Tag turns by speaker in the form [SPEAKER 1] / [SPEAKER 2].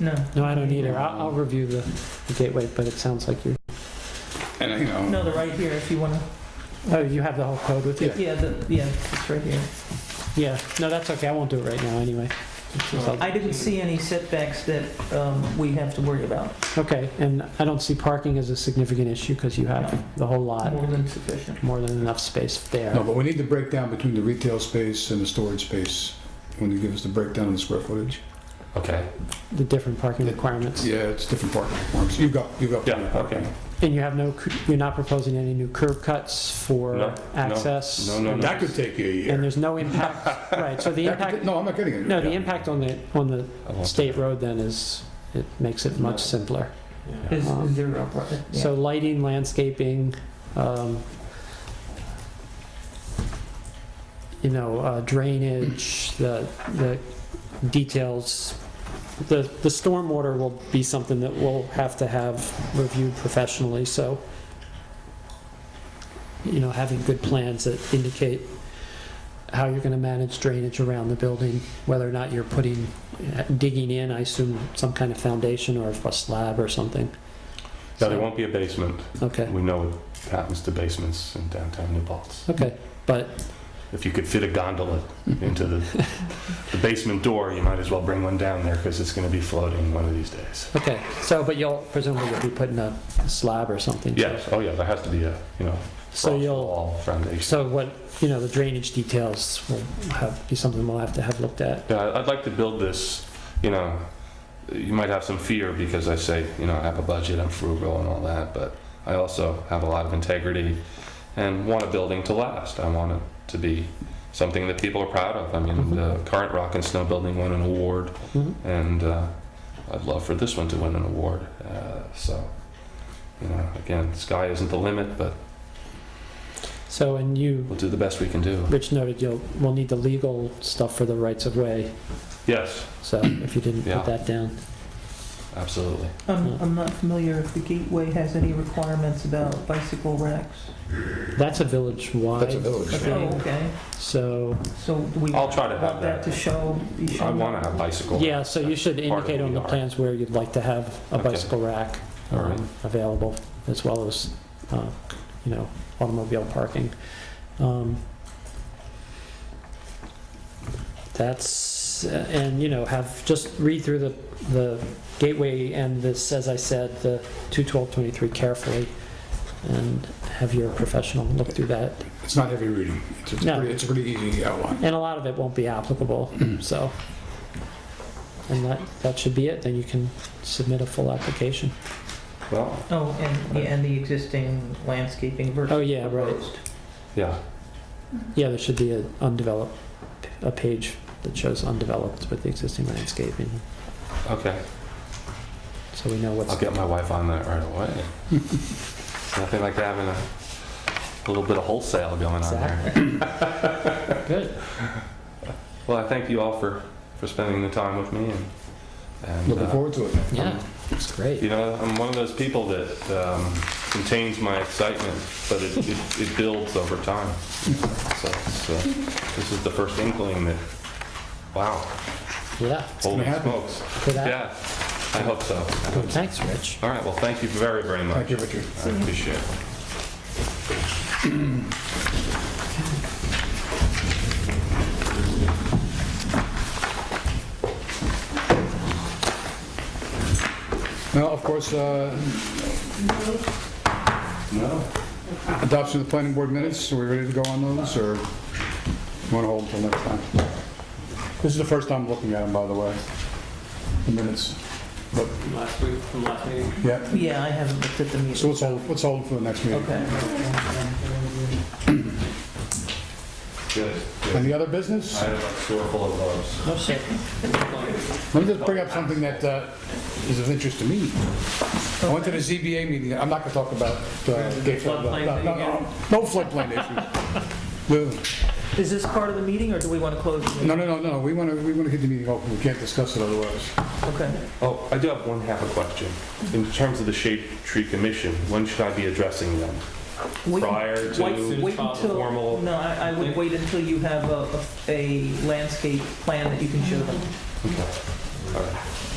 [SPEAKER 1] No.
[SPEAKER 2] No, I don't either. I'll, I'll review the, the gateway, but it sounds like you're,
[SPEAKER 3] And, you know,
[SPEAKER 1] No, they're right here if you wanna,
[SPEAKER 2] oh, you have the whole code with you?
[SPEAKER 1] yeah, the, yeah, it's right here.
[SPEAKER 2] Yeah, no, that's okay. I won't do it right now anyway. It's just I'll-
[SPEAKER 1] I didn't see any setbacks that, um, we have to worry about,
[SPEAKER 2] Okay, and I don't see parking as a significant issue because you have the whole lot,
[SPEAKER 1] more than sufficient.
[SPEAKER 2] more than enough space
[SPEAKER 3] no,
[SPEAKER 2] there.
[SPEAKER 3] but we need the breakdown between the retail space and the storage space. When you give us the breakdown of the square footage.
[SPEAKER 4] Okay.
[SPEAKER 2] The different parking requirements.
[SPEAKER 3] Yeah, it's different parking requirements. You've got, you've got.
[SPEAKER 4] Yeah, okay.
[SPEAKER 2] And you have no, cu- you're not proposing any new curb cuts
[SPEAKER 4] No,
[SPEAKER 2] for
[SPEAKER 4] no,
[SPEAKER 2] access?
[SPEAKER 4] no, no, no.
[SPEAKER 3] That could take you a
[SPEAKER 2] And
[SPEAKER 3] year.
[SPEAKER 2] there's no impact, right, so the
[SPEAKER 3] That could
[SPEAKER 2] impact,
[SPEAKER 3] ta- No, I'm not kidding. you.
[SPEAKER 2] no, the
[SPEAKER 4] yeah.
[SPEAKER 2] impact on the, on the
[SPEAKER 4] I won't-
[SPEAKER 2] state road then is, it makes it
[SPEAKER 4] No.
[SPEAKER 2] much simpler.
[SPEAKER 4] Yeah.
[SPEAKER 1] Is, is there a, pro- yeah.
[SPEAKER 2] Uh-huh. So lighting, landscaping, um, you know, uh, drainage, the, the details. The, the stormwater will be something that we'll have to have reviewed professionally, so, you know, having good plans that indicate how you're gonna manage drainage around the building, whether or not you're putting, uh, digging in, I assume, some kind of foundation or a slab or something.
[SPEAKER 4] No, there won't be a basement.
[SPEAKER 2] Okay.
[SPEAKER 4] We know what happens to basements in downtown New Paltz.
[SPEAKER 2] Okay, but,
[SPEAKER 4] If you could fit a gondola into the, the basement door, you might as well bring one down there because it's going to be floating one of these days.
[SPEAKER 2] okay, so, but you'll presumably you'll be putting a slab or something?
[SPEAKER 4] Yes, oh yeah, there has to be a, you know,
[SPEAKER 2] So
[SPEAKER 4] frost
[SPEAKER 2] you'll,
[SPEAKER 4] wall foundation.
[SPEAKER 2] so what, you know, the drainage details will have, be something we'll have to have looked at.
[SPEAKER 4] Yeah, I- I'd like to build this, you know, you might have some fear because I say, you know, I have a budget, I'm frugal and all that, but I also have a lot of integrity and want a building to last. I want it to be something that people are proud of. I mean, the current Rock and Snow building won an award
[SPEAKER 2] Mhm.
[SPEAKER 4] and uh, I'd love for this one to win an award. Uh, so, you know, again, sky isn't the limit, but
[SPEAKER 2] So, and you,
[SPEAKER 4] we'll do the best we can do.
[SPEAKER 2] Rich noted, you'll, we'll need the legal stuff for the rights of way,
[SPEAKER 4] Yes,
[SPEAKER 2] so if you didn't
[SPEAKER 4] Yeah.
[SPEAKER 2] put that down.
[SPEAKER 4] absolutely.
[SPEAKER 1] I'm, I'm not familiar if the gateway has any requirements about bicycle racks.
[SPEAKER 2] That's a
[SPEAKER 3] That's a
[SPEAKER 2] village-wide,
[SPEAKER 3] village.
[SPEAKER 1] Oh,
[SPEAKER 2] Okay.
[SPEAKER 1] okay,
[SPEAKER 2] so,
[SPEAKER 1] so do we
[SPEAKER 4] I'll
[SPEAKER 1] want
[SPEAKER 4] try to have
[SPEAKER 1] that
[SPEAKER 4] that.
[SPEAKER 1] to show, be
[SPEAKER 4] I
[SPEAKER 1] shown?
[SPEAKER 4] want to have bicycle.
[SPEAKER 2] yeah, so you should
[SPEAKER 4] That's part of
[SPEAKER 2] indicate on the
[SPEAKER 4] VR.
[SPEAKER 2] plans where you'd like to have a
[SPEAKER 4] Okay.
[SPEAKER 2] bicycle rack
[SPEAKER 4] All right.
[SPEAKER 2] um, available, as well as, uh, you know, automobile parking. Um, That's, uh, and, you know, have, just read through the, the gateway and this, as I said, the 21223 carefully, and have your professional look through that.
[SPEAKER 3] It's not heavy reading. It's it's
[SPEAKER 2] No.
[SPEAKER 3] pretty, it's a pretty easy outline.
[SPEAKER 2] And a lot of it won't be applicable, so. And that, that should be it, then you can submit a full application.
[SPEAKER 4] Well,
[SPEAKER 1] Oh, and, yeah, and the existing landscaping versus.
[SPEAKER 2] Oh, yeah, right.
[SPEAKER 1] proposed.
[SPEAKER 4] yeah.
[SPEAKER 2] Yeah, there should be an undeveloped, a page that shows undeveloped with the existing landscaping,
[SPEAKER 4] Okay.
[SPEAKER 2] so we know what's.
[SPEAKER 4] I'll get my wife on that right away. It's Nothing like having a, a little bit of wholesale going on there.
[SPEAKER 2] Good.
[SPEAKER 4] Well, I thank you all for, for spending the time with me and, and
[SPEAKER 3] Looking
[SPEAKER 4] uh,
[SPEAKER 3] forward to it.
[SPEAKER 2] Yeah, it's great.
[SPEAKER 4] You know, I'm one of those people that um, contains my excitement, but it, it, it builds over time. So, it's, uh this is the first inkling that, wow,
[SPEAKER 2] Yeah,
[SPEAKER 4] holy
[SPEAKER 3] happen.
[SPEAKER 4] smokes.
[SPEAKER 2] good app.
[SPEAKER 4] Yeah, I hope so.
[SPEAKER 2] Thanks, Rich.
[SPEAKER 4] All right, well, thank you very, very
[SPEAKER 3] Thank
[SPEAKER 4] much.
[SPEAKER 3] you, Richard.
[SPEAKER 4] I appreciate it.
[SPEAKER 3] Now, of course, uh,
[SPEAKER 4] No?
[SPEAKER 3] adoption of the planning board minutes, are we ready to go on those, or want to hold until next time? This is the first time looking at them, by the way, the minutes. But,
[SPEAKER 2] Last week, from last meeting.
[SPEAKER 3] yeah,
[SPEAKER 1] Yeah, I haven't looked at the meeting.
[SPEAKER 3] so let's hold, let's hold for the next meeting.
[SPEAKER 1] Okay.
[SPEAKER 4] Good. good.
[SPEAKER 3] Any other business?
[SPEAKER 4] I have a store full of loves.
[SPEAKER 1] No, sir.
[SPEAKER 3] Let me just bring up something that uh, is of interest to me. I went to the ZBA meeting, I'm not going to talk about uh, gay
[SPEAKER 1] Floodplain
[SPEAKER 3] No, no, no, no floodplain issues. No.
[SPEAKER 1] Is this part of the meeting, or do we want to close? the meeting?
[SPEAKER 3] No, no, no, no, we want to, we want to keep the meeting open, we can't discuss it otherwise.
[SPEAKER 1] Okay.
[SPEAKER 4] Oh, I do have one half a question. In terms of the Shade Tree Commission, when should I be addressing them?
[SPEAKER 1] Wait-
[SPEAKER 4] Prior to
[SPEAKER 1] wait-
[SPEAKER 4] Soon as
[SPEAKER 1] wait
[SPEAKER 4] possible.
[SPEAKER 1] until-
[SPEAKER 4] formal-
[SPEAKER 1] No, I I would wait until you have a- a a landscape plan that you can show them.
[SPEAKER 4] Okay. All right.